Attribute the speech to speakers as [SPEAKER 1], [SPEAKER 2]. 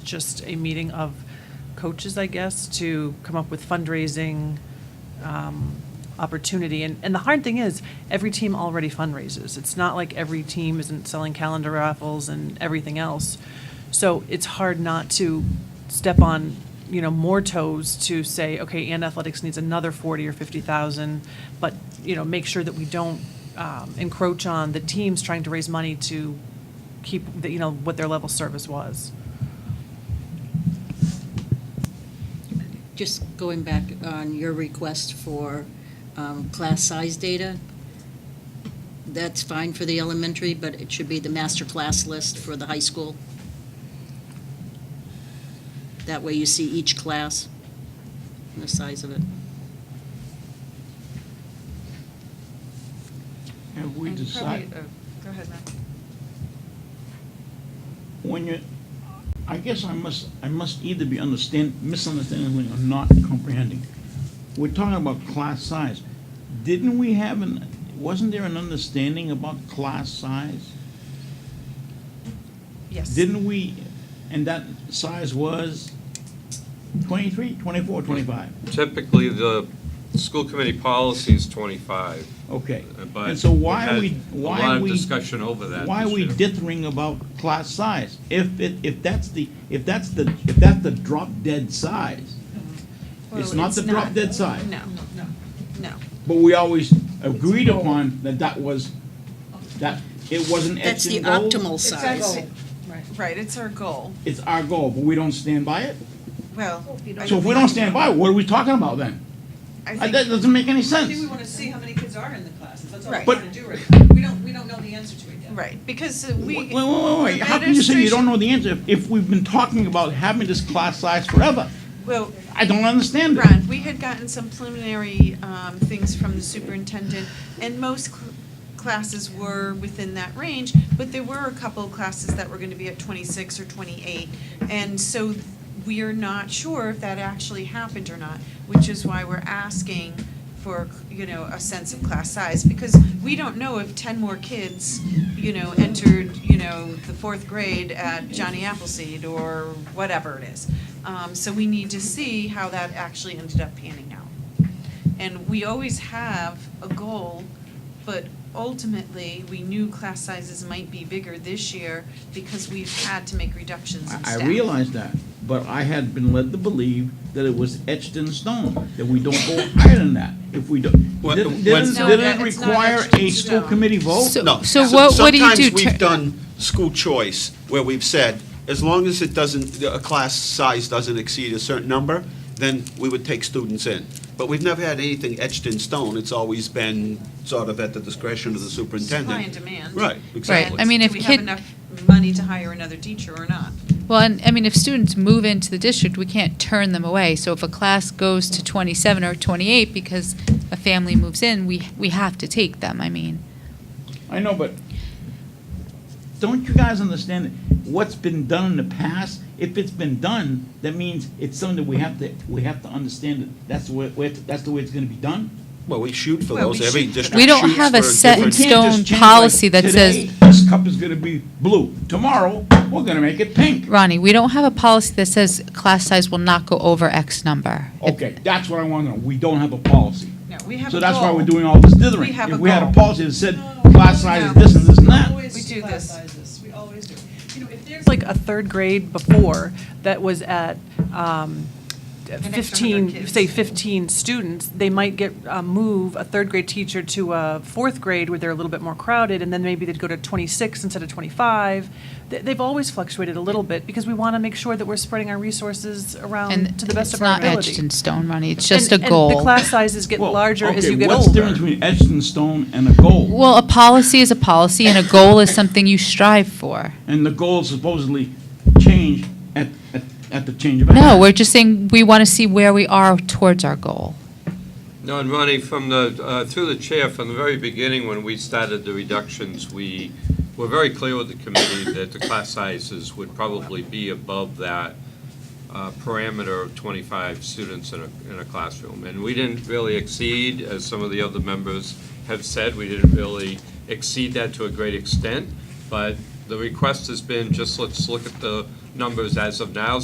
[SPEAKER 1] just a meeting of coaches, I guess, to come up with fundraising um, opportunity. And, and the hard thing is, every team already fundraises. It's not like every team isn't selling calendar raffles and everything else. So it's hard not to step on, you know, more toes to say, okay, and athletics needs another 40 or 50,000, but, you know, make sure that we don't um, encroach on the teams trying to raise money to keep, the- you know, what their level service was.
[SPEAKER 2] Just going back on your request for um, class size data, that's fine for the elementary, but it should be the master class list for the high school. That way you see each class and the size of it.
[SPEAKER 3] Have we
[SPEAKER 4] And probably-
[SPEAKER 3] decided,
[SPEAKER 4] oh, Go ahead, Matt.
[SPEAKER 3] when you, I guess I must, I must either be understand, misunderstanding or not comprehending. We're talking about class size. Didn't we have an, wasn't there an understanding about class size?
[SPEAKER 1] Yes.
[SPEAKER 3] Didn't we, and that size was 23, 24, 25?
[SPEAKER 5] Typically, the school committee policy is 25,
[SPEAKER 3] Okay.
[SPEAKER 5] Uh, but.
[SPEAKER 3] And so why
[SPEAKER 5] we've
[SPEAKER 3] are we,
[SPEAKER 5] had
[SPEAKER 3] why
[SPEAKER 5] A lot
[SPEAKER 3] are
[SPEAKER 5] of
[SPEAKER 3] we?
[SPEAKER 5] discussion over that.
[SPEAKER 3] Why are
[SPEAKER 5] this
[SPEAKER 3] we
[SPEAKER 5] year.
[SPEAKER 3] dithering about class size? If it, if that's the, if that's the, if that's the drop dead size, it's
[SPEAKER 4] Well,
[SPEAKER 3] not the drop dead size.
[SPEAKER 4] No, no, no.
[SPEAKER 3] But we always agreed upon that that was, that it wasn't
[SPEAKER 2] That's
[SPEAKER 3] etched
[SPEAKER 2] the
[SPEAKER 3] in gold.
[SPEAKER 2] optimal
[SPEAKER 4] It's our
[SPEAKER 2] size.
[SPEAKER 4] goal. Right, it's our goal.
[SPEAKER 3] It's our goal, but we don't stand by it?
[SPEAKER 4] Well. I
[SPEAKER 3] So if we don't
[SPEAKER 4] think-
[SPEAKER 3] stand by it, what are we talking about then?
[SPEAKER 4] I
[SPEAKER 3] Uh,
[SPEAKER 4] think-
[SPEAKER 3] That doesn't make any
[SPEAKER 6] I think we
[SPEAKER 3] sense.
[SPEAKER 6] wanna see how many kids are in the classes, that's all we're
[SPEAKER 4] Right.
[SPEAKER 3] But-
[SPEAKER 6] trying to do right now. We don't, we don't know the answer to it yet.
[SPEAKER 4] Right, because we.
[SPEAKER 3] Wait, wait, wait, wait,
[SPEAKER 4] the
[SPEAKER 3] how can you say you don't
[SPEAKER 4] administration-
[SPEAKER 3] know the answer if- if we've been talking about having this class size forever?
[SPEAKER 4] Well,
[SPEAKER 3] I don't understand it.
[SPEAKER 4] Ron, we had gotten some preliminary um, things from the superintendent, and most cl- classes were within that range, but there were a couple of classes that were going to be at 26 or 28. And so we are not sure if that actually happened or not, which is why we're asking for, you know, a sense of class size. Because we don't know if 10 more kids, you know, entered, you know, the fourth grade at Johnny Appleseed or whatever it is. Um, So we need to see how that actually ended up panning out. And we always have a goal, but ultimately, we knew class sizes might be bigger this year because we've had to make reductions in
[SPEAKER 3] I
[SPEAKER 4] staff.
[SPEAKER 3] I realize that, but I had been led to believe that it was etched in stone, that we don't go higher than that. If we don't,
[SPEAKER 7] What-
[SPEAKER 3] didn't,
[SPEAKER 7] when-
[SPEAKER 3] didn't
[SPEAKER 4] No,
[SPEAKER 3] didn't it
[SPEAKER 4] it's not
[SPEAKER 3] require
[SPEAKER 4] etched in
[SPEAKER 3] a school
[SPEAKER 4] stone.
[SPEAKER 3] committee vote?
[SPEAKER 8] So-
[SPEAKER 7] Oh, No.
[SPEAKER 8] So what, what do you do?
[SPEAKER 7] Sometimes
[SPEAKER 8] Tur-
[SPEAKER 7] we've done school choice where we've said, as long as it doesn't, a class size doesn't exceed a certain number, then we would take students in. But we've never had anything etched in stone. It's always been sort of at the discretion of the superintendent.
[SPEAKER 4] Supply and demand.
[SPEAKER 7] Right, exactly.
[SPEAKER 8] I mean, if
[SPEAKER 4] Do we have
[SPEAKER 8] kid-
[SPEAKER 4] enough money to hire another teacher or not?
[SPEAKER 8] Well, and, I mean, if students move into the district, we can't turn them away. So if a class goes to 27 or 28 because a family moves in, we, we have to take them, I mean.
[SPEAKER 3] I know, but don't you guys understand that what's been done in the past? If it's been done, that means it's something that we have to, we have to understand that that's the way, way- that's the way it's gonna be done?
[SPEAKER 7] Well, we shoot for
[SPEAKER 4] Well, we
[SPEAKER 7] those. Every
[SPEAKER 4] shoot for
[SPEAKER 7] district
[SPEAKER 4] that.
[SPEAKER 8] We don't
[SPEAKER 7] shoots
[SPEAKER 8] have a
[SPEAKER 7] for
[SPEAKER 8] set
[SPEAKER 3] We
[SPEAKER 8] in
[SPEAKER 7] different-
[SPEAKER 3] can't just
[SPEAKER 8] stone
[SPEAKER 3] change, like,
[SPEAKER 8] policy that
[SPEAKER 3] today,
[SPEAKER 8] says-
[SPEAKER 3] This cup is gonna be blue. Tomorrow, we're gonna make it pink.
[SPEAKER 8] Ronnie, we don't have a policy that says class size will not go over X number.
[SPEAKER 3] Okay, that's what I want to know. We don't have a policy.
[SPEAKER 4] No, we have a
[SPEAKER 3] So that's why
[SPEAKER 4] goal.
[SPEAKER 3] we're doing all this dithering.
[SPEAKER 4] We have
[SPEAKER 3] If
[SPEAKER 4] a
[SPEAKER 3] we had a
[SPEAKER 4] goal.
[SPEAKER 3] policy that said
[SPEAKER 6] No,
[SPEAKER 3] class size is this and this and that,
[SPEAKER 6] Always
[SPEAKER 4] We do
[SPEAKER 6] class
[SPEAKER 4] this.
[SPEAKER 6] sizes, we always do. You know, if there's
[SPEAKER 1] It's like a third grade before that was at um,
[SPEAKER 4] An extra
[SPEAKER 1] 15,
[SPEAKER 4] 100
[SPEAKER 1] say
[SPEAKER 4] kids.
[SPEAKER 1] 15 students, they might get, uh, move a third grade teacher to a fourth grade where they're a little bit more crowded, and then maybe they'd go to 26 instead of 25. Th- They've always fluctuated a little bit because we want to make sure that we're spreading our resources around
[SPEAKER 8] And
[SPEAKER 1] Um, to the best of our ability.
[SPEAKER 8] It's not etched in stone, Ronnie, it's just a
[SPEAKER 1] And-
[SPEAKER 8] goal.
[SPEAKER 1] And the class sizes get
[SPEAKER 3] well,
[SPEAKER 1] larger as
[SPEAKER 3] okay,
[SPEAKER 1] you get older.
[SPEAKER 3] what's the difference between etched in stone and a goal?
[SPEAKER 8] Well, a policy is a policy, and a goal is something you strive for.
[SPEAKER 3] And the goal supposedly changed at, at, at the change of.
[SPEAKER 8] No,
[SPEAKER 3] act.
[SPEAKER 8] we're just saying we want to see where we are towards our goal.
[SPEAKER 5] No, and Ronnie, from the, uh, through the chair, from the very beginning, when we started the reductions, we were very clear with the committee that the class sizes would probably be above that uh, parameter of 25 students in a, in a classroom. And we didn't really exceed, as some of the other members have said, we didn't really exceed that to a great extent. But the request has been, just let's look at the numbers as of now,